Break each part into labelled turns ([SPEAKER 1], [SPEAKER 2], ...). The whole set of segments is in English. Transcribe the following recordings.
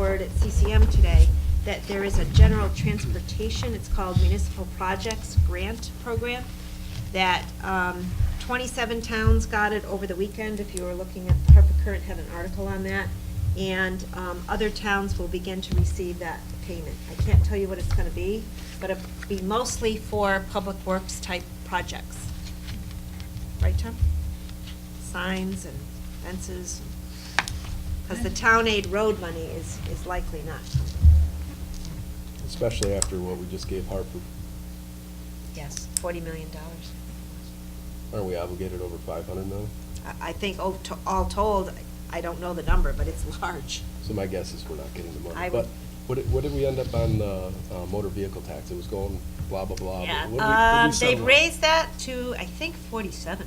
[SPEAKER 1] heard at CCM today, that there is a general transportation, it's called Municipal Projects Grant Program, that um, 27 towns got it over the weekend, if you were looking at, Harper Current had an article on that, and um, other towns will begin to receive that payment. I can't tell you what it's going to be, but it'll be mostly for public works type projects. Right, Tom? Signs and fences, because the town aid road money is, is likely not.
[SPEAKER 2] Especially after what we just gave Harper.
[SPEAKER 1] Yes. Forty million dollars.
[SPEAKER 2] Aren't we obligated over five hundred million?
[SPEAKER 1] I, I think all to- all told, I don't know the number, but it's large.
[SPEAKER 2] So my guess is we're not getting the money.
[SPEAKER 1] I
[SPEAKER 2] But
[SPEAKER 1] would-
[SPEAKER 2] what, did- what did we end up on, uh, uh, motor vehicle tax? It was going blah, blah, blah. but what did we- what did we
[SPEAKER 1] Um,
[SPEAKER 2] settle
[SPEAKER 1] they've
[SPEAKER 2] on?
[SPEAKER 1] raised that to, I think, forty-seven.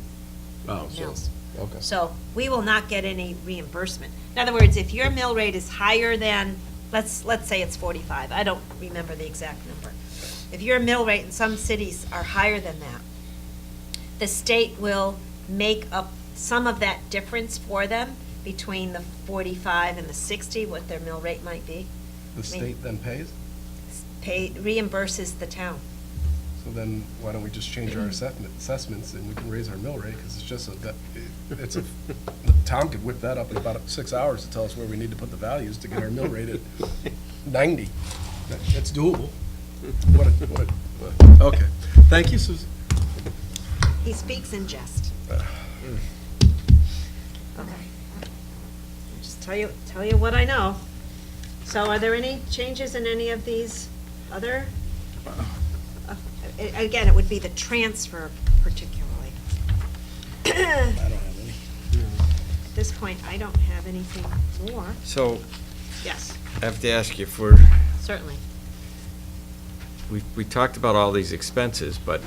[SPEAKER 2] Oh, so-
[SPEAKER 1] mills.
[SPEAKER 2] okay.
[SPEAKER 1] So we will not get any reimbursement. In other words, if your mill rate is higher than, let's, let's say it's forty-five, I don't remember the exact number. If your mill rate in some cities are higher than that, the state will make up some of that difference for them between the forty-five and the sixty, what their mill rate might be. I
[SPEAKER 3] The
[SPEAKER 1] mean,
[SPEAKER 3] state then pays,
[SPEAKER 1] pay, reimburses the town.
[SPEAKER 3] so then why don't we just change our assessment, assessments and we can raise our mill rate, because it's just a, that- it's a, Tom could whip that up in about six hours to tell us where we need to put the values to get our mill rate at ninety. That- That's doable. What a, what a, okay. Thank you, Susan.
[SPEAKER 1] He speaks in jest. Okay. Just tell you, tell you what I know. So are there any changes in any of these other? Uh, a- Again, it would be the transfer particularly. I don't have any. At this point, I don't have anything more.
[SPEAKER 4] So
[SPEAKER 1] Yes,
[SPEAKER 4] I have to ask you for,
[SPEAKER 1] certainly.
[SPEAKER 4] we, we talked about all these expenses, but,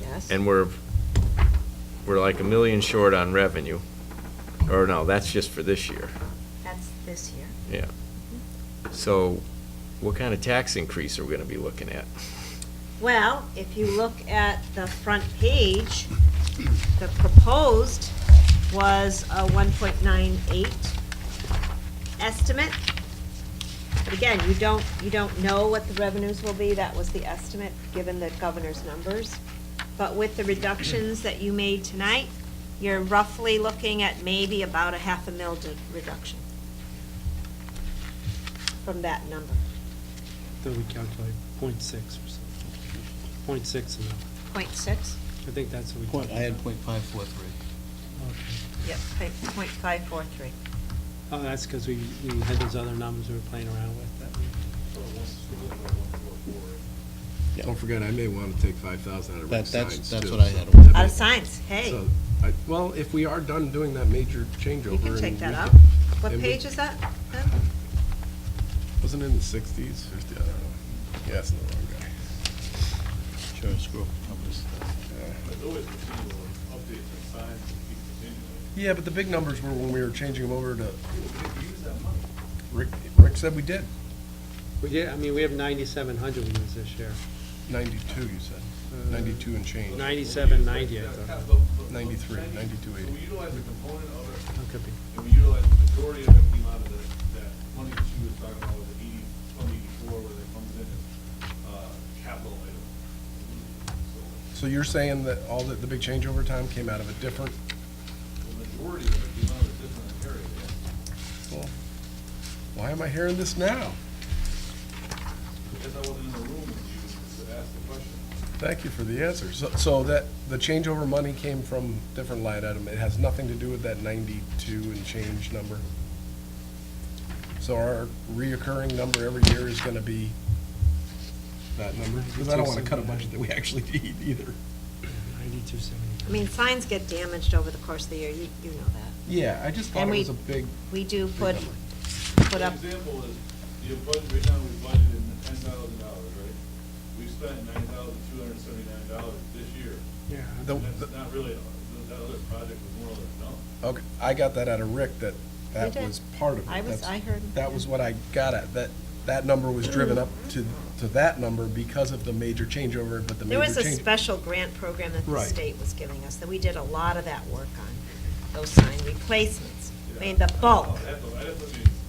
[SPEAKER 1] Yes.
[SPEAKER 4] and we're, we're like a million short on revenue. Or no, that's just for this year,
[SPEAKER 1] That's this year. Mm-hmm.
[SPEAKER 4] yeah. So what kind of tax increase are we gonna be looking at?
[SPEAKER 1] Well, if you look at the front page, the proposed was a 1.98 estimate. But again, you don't, you don't know what the revenues will be, that was the estimate, given the governor's numbers. But with the reductions that you made tonight, you're roughly looking at maybe about a half a mil de- reduction from that number,
[SPEAKER 5] Then we calculate point six or something. Point six amount.
[SPEAKER 1] .6?
[SPEAKER 5] I think that's what we.
[SPEAKER 6] Point, I had
[SPEAKER 5] talked
[SPEAKER 6] point five four three.
[SPEAKER 5] about. Okay.
[SPEAKER 1] Yep, .543.
[SPEAKER 5] Oh, that's because we, we had those other numbers we were playing around with. that we-
[SPEAKER 2] Don't forget, I may want to take five thousand out of
[SPEAKER 6] That-
[SPEAKER 2] Rick's
[SPEAKER 6] that's-
[SPEAKER 2] signs,
[SPEAKER 6] that's
[SPEAKER 2] too,
[SPEAKER 6] what I
[SPEAKER 2] so-
[SPEAKER 6] had. Out
[SPEAKER 1] Out of signs, hey,
[SPEAKER 2] So, I- Well, if we are done doing that major changeover.
[SPEAKER 1] you can
[SPEAKER 2] and
[SPEAKER 1] take
[SPEAKER 2] we
[SPEAKER 1] that
[SPEAKER 2] can-
[SPEAKER 1] up. What
[SPEAKER 2] and we-
[SPEAKER 1] page is that?
[SPEAKER 2] Wasn't it in the sixties, fifty, I don't know. Yeah, it's in the wrong guy.
[SPEAKER 6] Sure, screw. up. I'll just, uh,
[SPEAKER 3] Yeah, but the big numbers were when we were changing them over to. Rick, Rick said we did,
[SPEAKER 5] We did, I mean, we have ninety-seven hundred we used this year.
[SPEAKER 3] ninety-two, you said, ninety-two and change.
[SPEAKER 5] Ninety-seven ninety, I thought.
[SPEAKER 3] 93, 92,
[SPEAKER 7] So we utilize a component of it,
[SPEAKER 5] That could be.
[SPEAKER 7] and we utilize the majority of it came out of the, that money that she was talking about, with the eighty, from eighty-four, where that comes in as, uh, capital item.
[SPEAKER 3] So
[SPEAKER 7] So
[SPEAKER 3] you're saying that all the, the big changeover time came out of a different,
[SPEAKER 7] the majority of it came out of a different area, yeah.
[SPEAKER 3] well, why am I hearing this now?
[SPEAKER 7] Because I wasn't in the room when you asked the question.
[SPEAKER 3] Thank you for the answer. So, so that, the changeover money came from different line item. It has nothing to do with that 92 and change number. So our reoccurring number every year is gonna be that number? Because I don't wanna cut a budget that we actually need either.
[SPEAKER 5] Ninety-two seventy.
[SPEAKER 1] I mean, signs get damaged over the course of the year, you, you know that.
[SPEAKER 3] Yeah, I just thought
[SPEAKER 1] And
[SPEAKER 3] it
[SPEAKER 1] we-
[SPEAKER 3] was a big,
[SPEAKER 1] We do put,
[SPEAKER 3] number.
[SPEAKER 1] put
[SPEAKER 7] An
[SPEAKER 1] up,
[SPEAKER 7] example is, you budget, right now, we budgeted in ten thousand dollars, right? We've spent nine thousand two hundred and seventy-nine dollars this year.
[SPEAKER 5] Yeah.
[SPEAKER 3] The-
[SPEAKER 7] And that's not really, a- that other project was more or less done.
[SPEAKER 3] okay, I got that out of Rick, that that
[SPEAKER 1] did.
[SPEAKER 3] was part of it.
[SPEAKER 1] I was,
[SPEAKER 3] That's-
[SPEAKER 1] I heard.
[SPEAKER 3] That was what I got at, that, that number was driven up to, to that number because of the major changeover, but the
[SPEAKER 1] There
[SPEAKER 3] major
[SPEAKER 1] was a
[SPEAKER 3] change.
[SPEAKER 1] special grant program that the
[SPEAKER 3] Right.
[SPEAKER 1] state was giving us, that we did a lot of that work on, those sign replacements. I mean, the bulk,
[SPEAKER 7] É I'd have to, I'd have to be